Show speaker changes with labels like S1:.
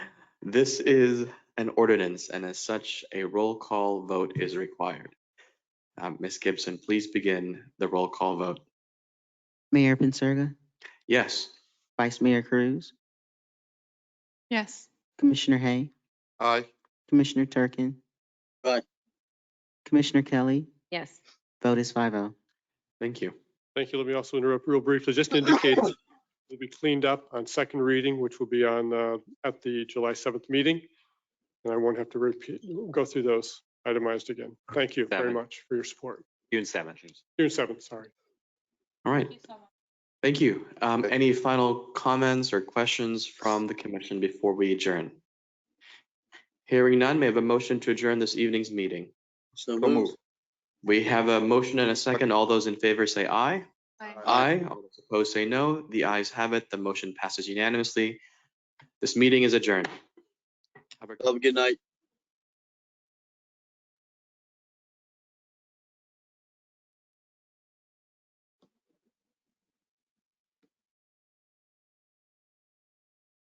S1: This is an ordinance, and as such, a roll call vote is required. Um, Ms. Gibson, please begin the roll call vote.
S2: Mayor Pensurga,
S1: Yes.
S2: Vice Mayor Cruz,
S3: Yes.
S2: Commissioner Hay,
S4: Aye.
S2: Commissioner Turkin.
S5: Aye.
S2: Commissioner Kelly,
S3: Yes.
S2: vote is five oh.
S1: Thank you.
S4: Thank you. Let me also interrupt real briefly, just to indicate it'll be cleaned up on second reading, which will be on, uh, at the July 7th meeting. And I won't have to repeat, go through those itemized again. Thank you very
S1: Seven.
S4: much for your support.
S1: June 7th.
S4: June 7th, sorry.
S1: All right, thank you. Um, Any final comments or questions from the commission before we adjourn? Hearing none, may I have a motion to adjourn this evening's meeting?
S5: So
S1: So
S5: moved.
S1: moved. We have a motion and a second. All those in favor say aye. Aye. All those Opposed say no. The ayes have it. The motion passes unanimously. This meeting is adjourned. Have a-
S5: Have a good night.